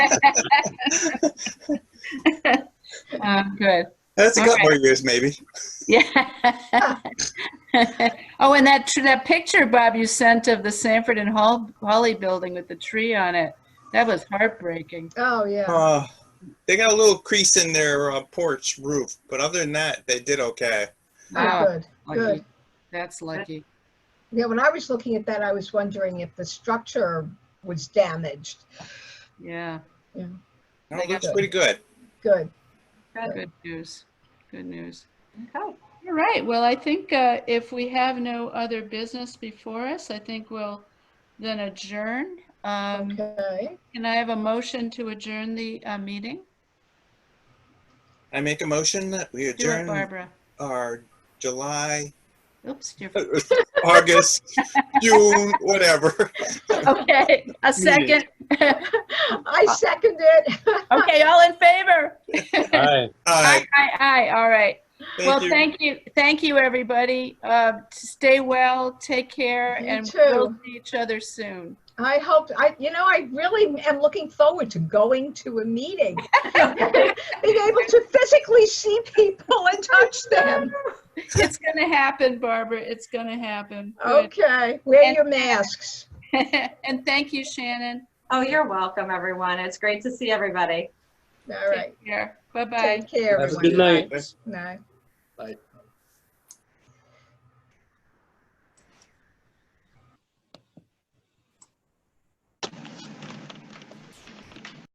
Oh, good. That's a couple Okay. more years, maybe. Yeah. Oh, and that, tr- that picture, Bob, you sent of the Sanford and Hol- Holly building with the tree on it, that was heartbreaking. Oh, yeah. Uh, they got a little crease in their uh, porch roof, but other than that, they did okay. Oh, Wow. good. Good. That's lucky. Yeah, when I was looking at that, I was wondering if the structure was damaged. Yeah. No, They it looks got- pretty good. Good. Good news. Good news. Okay. All right. Well, I think uh, if we have no other business before us, I think we'll then adjourn. Um, Okay. Can I have a motion to adjourn the uh, meeting? I make a motion that we Do it, adjourn Barbara. our July, Oops. you're- August, June, whatever. Okay, a second. I second it. Okay, all in favor? Aye. Uh, Aye, aye, aye. All right. Well, thank you. thank you, thank you, everybody. Uh, Stay well, take care, You and too. we'll see each other soon. I hope, I, you know, I really am looking forward to going to a meeting. Being able to physically see people and touch them. It's gonna happen, Barbara. It's gonna happen. Good. Okay, wear your masks. And thank you, Shannon. Oh, you're welcome, everyone. It's great to see everybody. All right. Take care. Bye-bye. Take care, Have a everyone. good night. Night. Bye.